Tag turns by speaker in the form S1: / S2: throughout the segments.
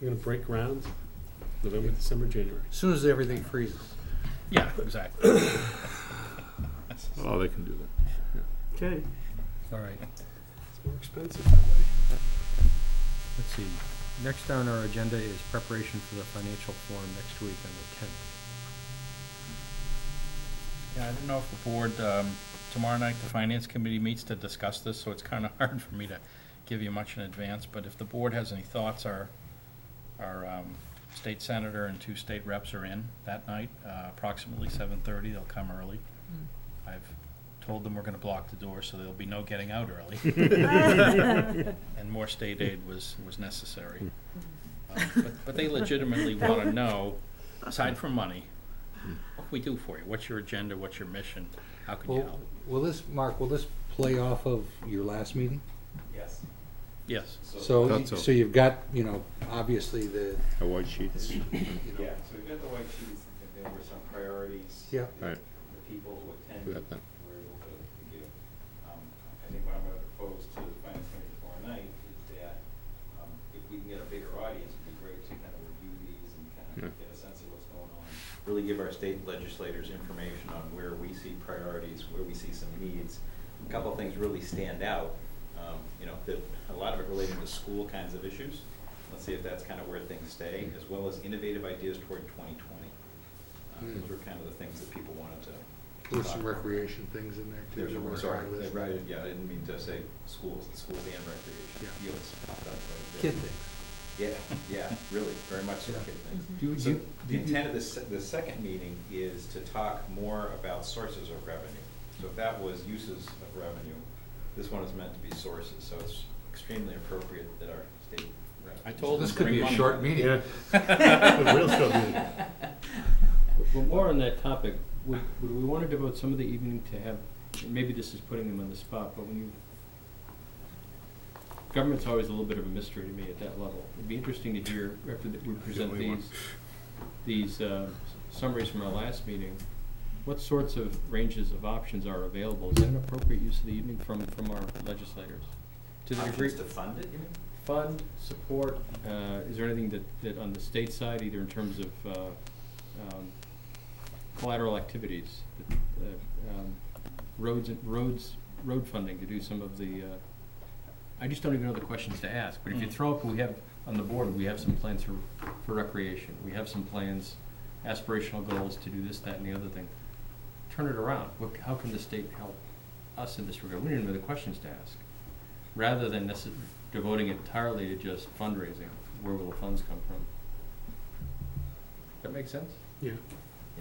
S1: We're gonna break ground November, December, January.
S2: Soon as everything freezes.
S3: Yeah, exactly.
S4: Oh, they can do that.
S1: Okay.
S2: All right,
S1: It's more expensive that way.
S2: let's see. Next on our agenda is preparation for the financial forum next week on the tenth.
S3: Yeah, I don't know if the board, um, tomorrow night, the finance committee meets to discuss this, so it's kind of hard for me to give you much in advance, but if the board has any thoughts, our, our um, state senator and two state reps are in that night, uh, approximately 7:30, they'll come early. I've told them we're going to block the door, so there'll be no getting out early, and more state aid was, was necessary. Uh, but- But they legitimately want to know, aside from money, what can we do for you? What's your agenda? What's your mission? How can you
S2: Will,
S3: help?
S2: will this, Mark, will this play off of your last meeting?
S5: Yes.
S3: Yes.
S2: So,
S4: That's all.
S2: so you've got, you know, obviously the,
S4: A white sheets.
S2: you know.
S5: Yeah, so we've got the white sheets, and there were some priorities.
S2: Yeah.
S5: that
S4: Right.
S5: The people who
S4: We
S5: attended
S4: got that.
S5: were able to to give. Um, I think what I'm gonna propose to the finance committee tomorrow night is that, um, if we can get a bigger audience, it'd be great to kind of review these and kind
S4: Yeah.
S5: of get a sense of what's going on. Really give our state legislators information on where we see priorities, where we see some needs. A Couple of things really stand out, um, you know, that, a lot of it relating to school kinds of issues. Let's see if that's kind of where things stay, as well as innovative ideas toward twenty twenty. Um, Those were kind of the things that people wanted to.
S2: There's Hmm. some recreation things in there too.
S5: There's
S2: that
S5: a,
S2: were
S5: sorry,
S2: on the list.
S5: right, yeah, I didn't mean to say schools, schools and recreation.
S2: Yeah.
S5: Yes, popped up right there.
S2: Kid things.
S5: Yeah, yeah, really, very much so
S2: Yeah.
S5: kid things.
S2: Do
S5: So
S2: you-
S5: the
S2: do you-
S5: intent of this, the second meeting is to talk more about sources of revenue. So if that was uses of revenue, this one is meant to be sources, so it's extremely appropriate that our state. rep-
S3: I told
S2: This
S3: them
S2: could
S3: bring
S2: be a
S3: money.
S2: short meeting.
S1: Yeah. Real short meeting.
S6: But more on that topic, would, would we want to devote some of the evening to have, and maybe this is putting them on the spot, but when you, government's always a little bit of a mystery to me at that level. It'd be interesting to hear, after that we present
S4: only one.
S6: these, these uh, summaries from our last meeting, what sorts of ranges of options are available? Is that an appropriate use of the evening from, from our legislators? To the degree,
S5: Options to fund it, you mean?
S6: fund, support, uh, is there anything that, that on the state side, either in terms of, uh, um, collateral activities, that, uh, um, roads, and- roads, road funding to do some of the, uh, I just don't even know the questions to ask, but if you
S3: Mm.
S6: throw up, we have, on the board, we have some plans for, for recreation, we have some plans, aspirational goals to do this, that, and the other thing. Turn it around, what, how can the state help us in this regard? We don't even know the questions to ask rather than necess- devoting entirely to just fundraising, where will the funds come from? That make sense?
S1: Yeah,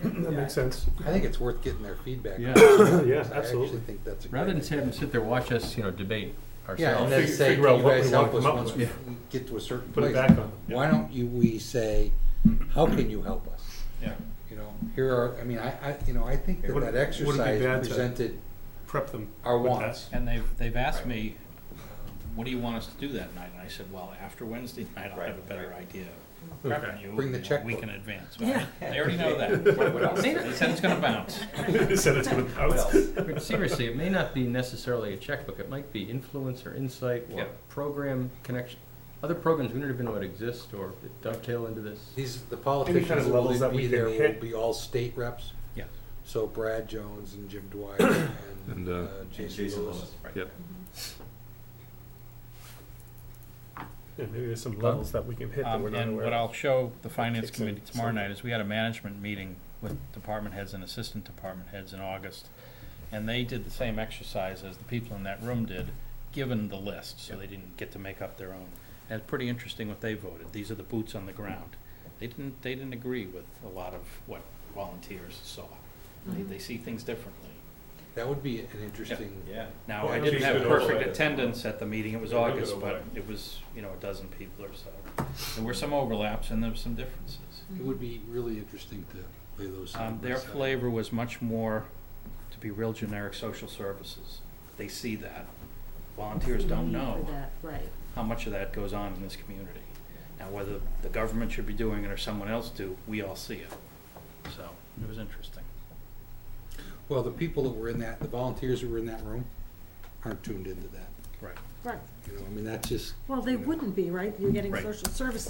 S1: that makes sense.
S2: I think it's worth getting their feedback. on.
S6: Yeah.
S1: Yeah,
S2: I
S1: absolutely.
S2: actually think that's a great
S6: Rather than
S2: idea.
S6: have them sit there, watch us, you know, debate
S2: Yeah,
S6: ourselves.
S2: and then
S1: Figure-
S2: say, can
S1: figure out
S2: you
S1: what we
S2: guys
S1: wanna
S2: help us
S1: come up
S2: once we
S6: with."
S2: get to a certain
S1: Put
S2: place?
S1: it back on.
S2: Why don't you, we say, how can you help us?
S3: Yeah.
S2: You know, here are, I mean, I, I, you know, I think that
S1: Would-
S2: that
S1: would it be
S2: exercise
S1: bad to-
S2: presented
S1: Prep them.
S2: our
S1: with
S2: wants.
S3: And they've, they've asked me, what do you want us to do that night? And I said, well, after Wednesday night, I'll have a
S5: Right,
S3: better
S5: right.
S3: idea.
S1: Okay.
S3: Prepping you,
S2: Bring the
S3: you know,
S2: checkbook.
S3: We can advance.
S7: Yeah.
S3: They already know that.
S5: What- what else?
S3: They they said it's gonna bounce.
S1: that. Said it's gonna
S5: What
S1: bounce.
S5: else?
S6: But Seriously, it may not be necessarily a checkbook, it might be influence or insight
S3: Yeah.
S6: or program connection. Other programs, we don't even know it exists or that dovetail into this.
S2: These, the
S1: Any kind of
S2: politicians that
S1: levels
S2: will
S1: that we
S2: be
S1: can
S2: there will
S1: hit.
S2: be all state reps,
S3: Yeah.
S2: so Brad Jones and Jim Dwyer and
S4: And, uh,
S2: uh,
S5: And
S2: Jason Lewis.
S5: right.
S4: Yep.
S1: Yeah, maybe there's some levels that we can hit that
S3: Um,
S1: we're not
S3: And
S1: aware
S3: what
S1: of.
S3: I'll show the finance
S1: Kicks in
S3: committee tomorrow
S1: something.
S3: night is we had a management meeting with department heads and assistant department heads in August. And they did the same exercise as the people in that room did, given the list, so they didn't get to make up their own. And it's pretty interesting what they voted. These are the boots on the ground. They didn't, they didn't agree with a lot of what volunteers saw. They, they see things differently.
S2: That would be an interesting,
S5: Yeah.
S3: Now, I
S1: Well,
S3: didn't
S1: geez,
S3: have
S1: good old
S3: perfect
S5: way.
S3: attendance at the meeting, it was
S1: Good old
S3: August,
S1: way.
S3: but it was, you know, a dozen people or so. There were some overlaps and there were some differences.
S2: it would be really interesting to lay those.
S3: Um,
S2: side by
S3: their
S2: side.
S3: flavor was much more, to be real generic, social services. They see that. Volunteers don't know
S7: Right.
S3: how much of that goes on in this community. Now, whether the government should be doing it or someone else do, we all see it. So, it was interesting.
S2: Well, the people that were in that, the volunteers who were in that room aren't tuned into that.
S3: Right.
S7: Right.
S2: You know, I mean, that's just,
S7: Well, they wouldn't be, right? You're getting
S3: Right.
S7: social services